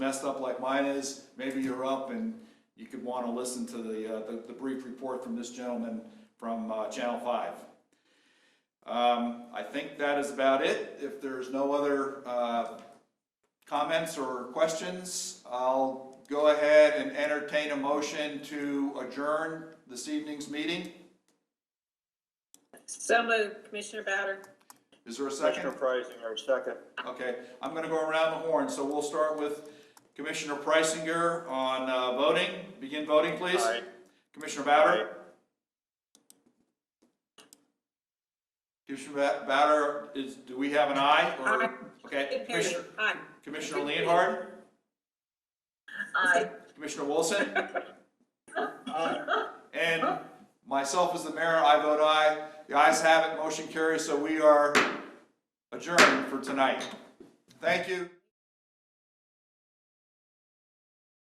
messed up like mine is, maybe you're up and you could want to listen to the, uh, the- the brief report from this gentleman from uh, Channel 5. Um, I think that is about it. If there's no other uh, comments or questions, I'll go ahead and entertain a motion to adjourn this evening's meeting. So moved, Commissioner Bowder. Is there a second? Commissioner Priceinger, second. Okay, I'm gonna go around the horn, so we'll start with Commissioner Preisinger on uh, voting. Begin voting, please. Aye. Commissioner Bowder? Commissioner Ba- Bowder, is, do we have an aye? or- Aye. Okay, Good period. Commissioner- Aye. Commissioner Leonhard? Aye. Commissioner Wilson? And myself as the mayor, I vote aye. The ayes have it, motion carries, so we are adjourned for tonight. Thank you.